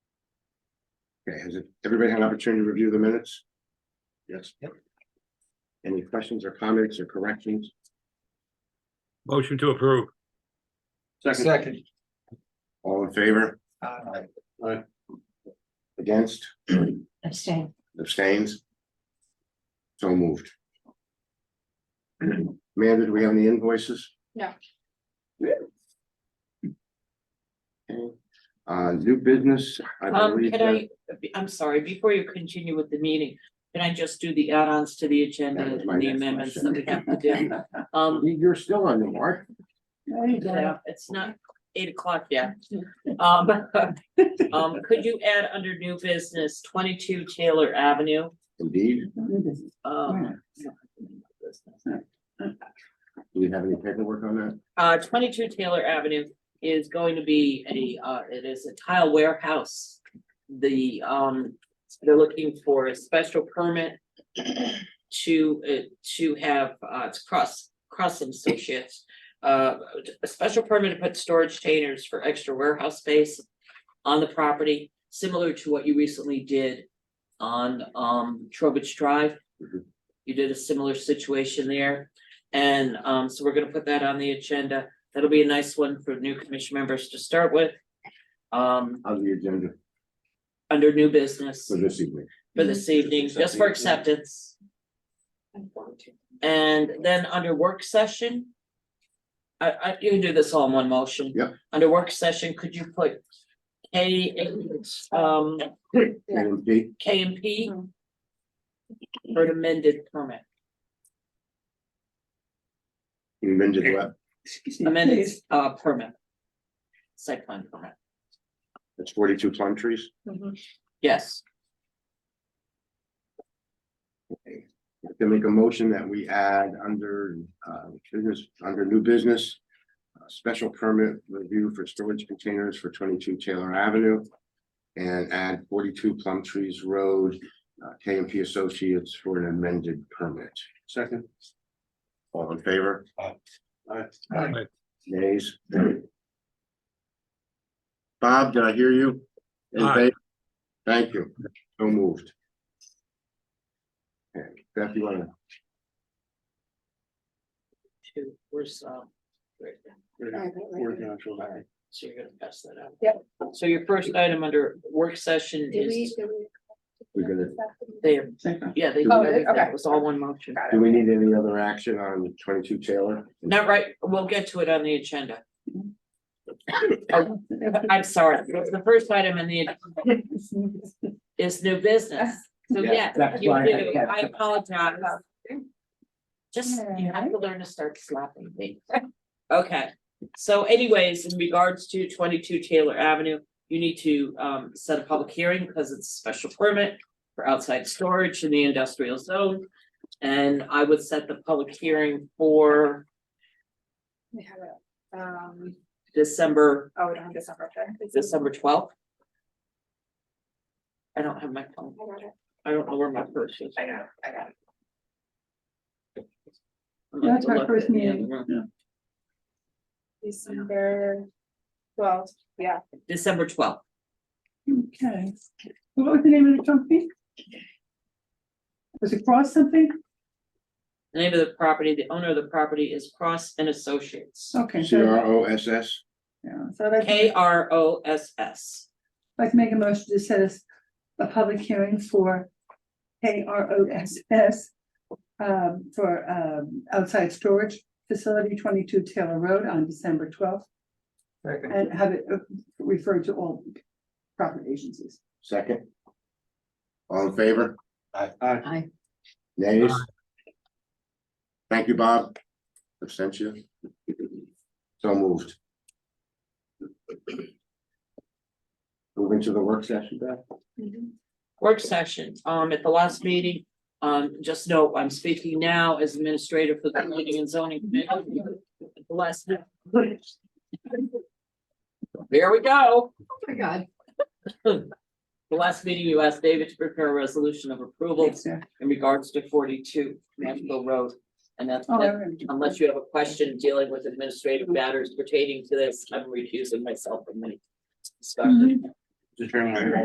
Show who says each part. Speaker 1: Okay, has it- everybody had an opportunity to review the minutes? Yes.
Speaker 2: Yep.
Speaker 1: Any questions or comments or corrections?
Speaker 3: Motion to approve.
Speaker 2: Second.
Speaker 1: All in favor,
Speaker 2: Aye.
Speaker 1: against,
Speaker 4: abstain,
Speaker 1: abstains? So moved. Amanda, do we have any invoices?
Speaker 4: No.
Speaker 1: Yeah. Okay, Uh, new business, I
Speaker 5: Um,
Speaker 1: believe.
Speaker 5: can
Speaker 1: that-
Speaker 5: I, I'm sorry, before you continue with the meeting, can I just do the add-ons to the agenda
Speaker 1: That was
Speaker 5: and
Speaker 1: my
Speaker 5: the
Speaker 1: next
Speaker 5: amendments that we
Speaker 1: question.
Speaker 5: have to do? Um,
Speaker 1: You're still on the mark.
Speaker 5: yeah, it's not eight o'clock yet. Um, um, could you add under new business twenty-two Taylor Avenue?
Speaker 1: Indeed,
Speaker 5: Um,
Speaker 1: do we have any paperwork on that?
Speaker 5: uh, twenty-two Taylor Avenue is going to be a, uh, it is a tile warehouse. The, um, they're looking for a special permit to, uh, to have, uh, it's cross, cross associates. Uh, a special permit to put storage containers for extra warehouse space on the property, similar to what you recently did on, um, Trowbridge Drive.
Speaker 1: Mhm.
Speaker 5: You did a similar situation there. And um, so we're gonna put that on the agenda. That'll be a nice one for new commission members to start with. Um,
Speaker 1: On the agenda
Speaker 5: under new business
Speaker 1: for this evening.
Speaker 5: for this evening, just for acceptance. And then under work session. I, I, you can do this all in one motion.
Speaker 1: Yep.
Speaker 5: Under work session, could you put K, um,
Speaker 4: Yeah.
Speaker 1: Item D,
Speaker 5: K and P?
Speaker 4: Mhm.
Speaker 5: For an amended permit,
Speaker 1: amended what?
Speaker 5: amended, uh, permit. Site plan permit,
Speaker 1: That's forty-two plum trees.
Speaker 5: yes.
Speaker 1: To make a motion that we add under, uh, business, under new business. uh, Special permit review for storage containers for twenty-two Taylor Avenue. And add forty-two Plum Trees Road, uh, K and P Associates for an amended permit. Second. All in favor?
Speaker 2: Aye.
Speaker 1: Nays? Bob, did I hear you? In
Speaker 3: Aye.
Speaker 1: favor? Thank you. So moved. Okay, Beth, you wanna?
Speaker 5: Two, where's, um, right there. so you're gonna pass that out.
Speaker 4: Yep.
Speaker 5: So your first item under work session
Speaker 4: Did we,
Speaker 5: is,
Speaker 4: did we?
Speaker 1: We're gonna-
Speaker 5: they, yeah, they,
Speaker 4: Oh, it- okay.
Speaker 5: that was all one motion.
Speaker 4: Got
Speaker 1: Do we need any other action on twenty-two Taylor?
Speaker 5: Not right, we'll get to it on the agenda. I'm sorry, the first item in the, is new business. So
Speaker 1: Yeah,
Speaker 5: yeah,
Speaker 1: that's
Speaker 5: you
Speaker 1: why I
Speaker 5: do,
Speaker 1: kept-
Speaker 5: I apologize. Just, you have to learn to start slapping me. Okay, so anyways, in regards to twenty-two Taylor Avenue, you need to um set a public hearing because it's a special permit. For outside storage in the industrial zone, and I would set the public hearing for
Speaker 4: We have it, um,
Speaker 5: December,
Speaker 4: oh, we don't have December fifth.
Speaker 5: December twelfth. I don't have my phone,
Speaker 4: I got it,
Speaker 5: I don't know where my purse is.
Speaker 4: I got it, I got it.
Speaker 5: I'm gonna
Speaker 6: That's my
Speaker 5: look
Speaker 6: first
Speaker 5: in the other
Speaker 6: meeting.
Speaker 5: room.
Speaker 4: December twelfth, yeah,
Speaker 5: December twelfth.
Speaker 6: Okay, what was the name of the company? Was it Cross something?
Speaker 5: The name of the property, the owner of the property is Cross and Associates,
Speaker 6: Okay,
Speaker 1: C
Speaker 6: so,
Speaker 1: R O S S,
Speaker 6: yeah, so I'd like to-
Speaker 5: K R O S S.
Speaker 6: I'd like to make a motion to set us a public hearing for K R O S S um, for, um, outside storage facility twenty-two Taylor Road on December twelfth and have it uh, referred to all property agencies.
Speaker 1: second. All in favor?
Speaker 2: Aye.
Speaker 1: Nays? Thank you, Bob. Abstention? So moved. Moving to the work session, Beth?
Speaker 5: Work session, um, at the last meeting, um, just note, I'm speaking now as administrator for the planning and zoning. committee. At the Last. meeting. There we go.
Speaker 4: my God.
Speaker 5: The last meeting, you asked David to prepare a resolution of approval
Speaker 6: Yes, sir.
Speaker 5: in regards to forty-two Nashville Road. And that's,
Speaker 6: Oh, I
Speaker 5: that's
Speaker 6: remember.
Speaker 5: unless you have a question dealing with administrative matters pertaining to this, I'm recusing myself from the discussion.
Speaker 6: Mhm.
Speaker 2: Mr. Chairman, I-